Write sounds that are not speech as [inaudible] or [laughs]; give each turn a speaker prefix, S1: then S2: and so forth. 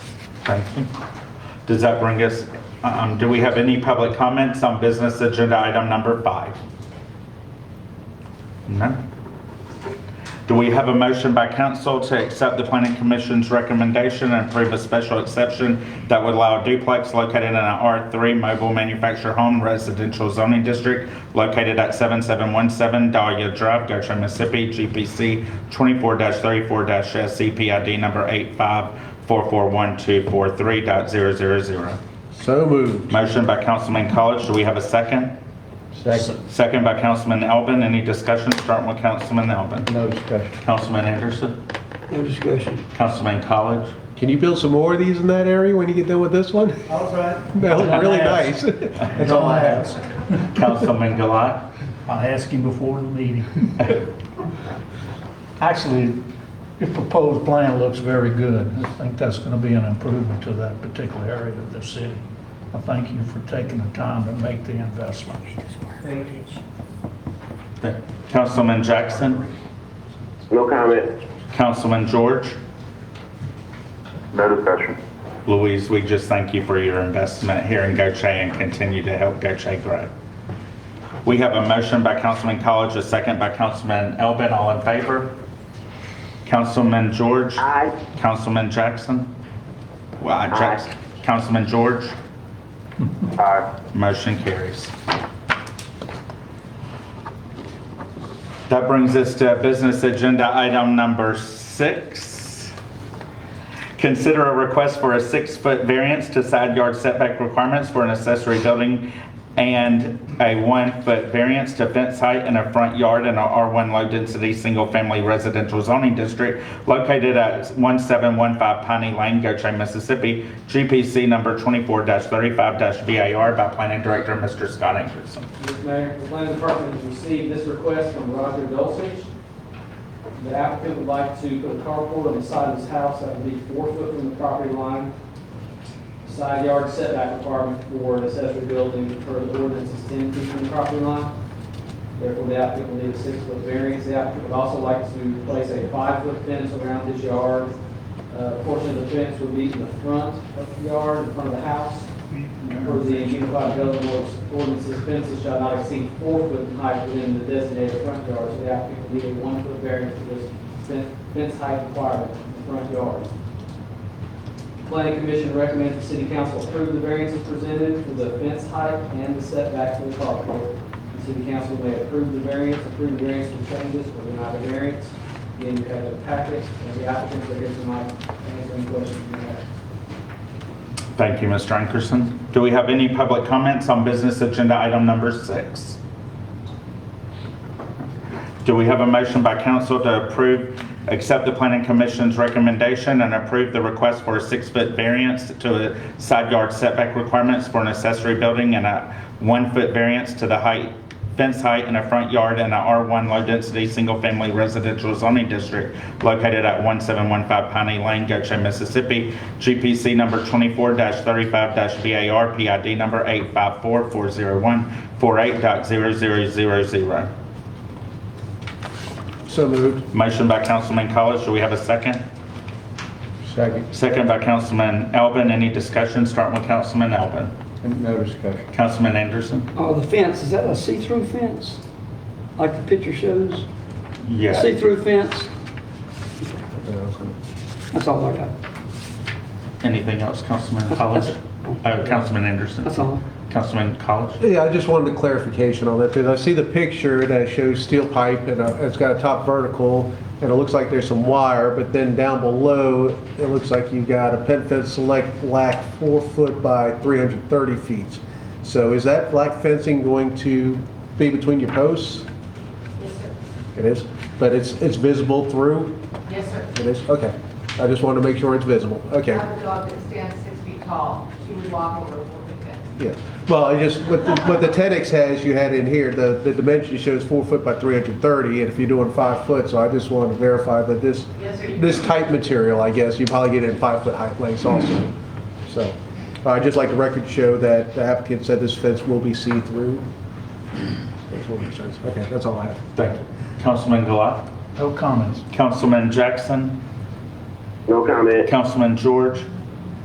S1: Thank you. Does that bring us, um, do we have any public comments on business agenda item number five? None. Do we have a motion by council to accept the planning commission's recommendation and approve a special exception that would allow a duplex located in an R3 mobile manufactured home residential zoning district located at 7717 Dahlia Drive, Goshen, Mississippi, GPC 24-34-SCPID number 85441243000.
S2: So moved.
S1: Motion by Councilman College, do we have a second?
S2: Second.
S1: Second by Councilman Elbin, any discussion starting with Councilman Elbin?
S2: No discussion.
S1: Councilman Anderson?
S3: No discussion.
S1: Councilman College?
S2: Can you build some more of these in that area when you get done with this one?
S3: All right.
S2: [laughs] That looked really nice. [laughs] That's all I have.
S1: Councilman Gilat?
S4: I'll ask him before the meeting. [laughs] Actually, the proposed plan looks very good. I think that's going to be an improvement to that particular area of the city. I thank you for taking the time to make the investment.
S1: Councilman Jackson?
S5: No comment.
S1: Councilman George?
S5: No discussion.
S1: Louise, we just thank you for your investment here in Goche and continue to help Goche grow. We have a motion by Councilman College, a second by Councilman Elbin, all in favor? Councilman George?
S5: Aye.
S1: Councilman Jackson? Well, I- Jackson. Councilman George?
S5: Aye.
S1: Motion carries. That brings us to business agenda item number six. Consider a request for a six-foot variance to side yard setback requirements for an accessory building and a one-foot variance to fence height in a front yard in a R1 low-density, single-family residential zoning district located at 1715 Piney Lane, Goche, Mississippi, GPC number 24-35-VAR by Planning Director, Mr. Scott Ankerson.
S6: Mr. Mayor, the planning department has received this request from Roger Dulcich. The applicant would like to put a carport on the side of his house that would be four foot from the property line. Side yard setback requirement for an accessory building per the ordinance is ten feet from the property line. Therefore, the applicant will need a six-foot variance. The applicant would also like to place a five-foot fence around his yard. Uh, portion of the fence would be in the front of the yard, in front of the house. For the unified building works ordinances, fences shall not exceed four foot in height within the designated front yard. So the applicant will need a one foot variance for this fen- fence height requirement in the front yard. Planning Commission recommends the city council approve the variances presented for the fence height and the setback for the carport. The city council may approve the variance, approve the variance with changes, or deny the variance. Again, you have the packets, and the applicants are here tonight, answer any questions you have.
S1: Thank you, Mr. Ankerson. Do we have any public comments on business agenda item number six? Do we have a motion by council to approve, accept the planning commission's recommendation and approve the request for a six-foot variance to the side yard setback requirements for an accessory building and a one-foot variance to the height, fence height in a front yard in a R1 low-density, single-family residential zoning district located at 1715 Piney Lane, Goche, Mississippi, GPC number 24-35-VAR, PID number 85440148000.
S2: So moved.
S1: Motion by Councilman College, do we have a second?
S2: Second.
S1: Second by Councilman Elbin, any discussion, starting with Councilman Elbin?
S2: No discussion.
S1: Councilman Anderson?
S3: Oh, the fence, is that a see-through fence? Like the picture shows?
S1: Yes.
S3: See-through fence? That's all I got.
S1: Anything else, Councilman
S3: [laughs]
S1: College? Uh, Councilman Anderson?
S3: That's all.
S1: Councilman College?
S2: Yeah, I just wanted a clarification on that, because I see the picture that shows steel pipe, and uh, it's got a top vertical, and it looks like there's some wire, but then down below, it looks like you've got a pen fence select black four foot by 330 feet. So is that black fencing going to be between your posts?
S7: Yes, sir.
S2: It is, but it's, it's visible through?
S7: Yes, sir.
S2: It is, okay. I just wanted to make sure it's visible,
S7: I
S2: okay.
S7: have a dog that stands six feet tall. She would walk over a little bit.
S2: Yeah, well, I just, what the, what the TEDx has, you had in here, the, the dimension shows four foot by three hundred and thirty, and if you're doing five foot, so I just wanted to verify that this,
S7: Yes, sir.
S2: this type material, I guess, you probably get it in five foot height lengths also. So, I'd just like the record to show that the applicant said this fence will be see-through. Makes more sense. Okay, that's all I have.
S1: Thank you. Councilman Gilat?
S4: No comments.
S1: Councilman Jackson?
S5: No comment.
S1: Councilman George?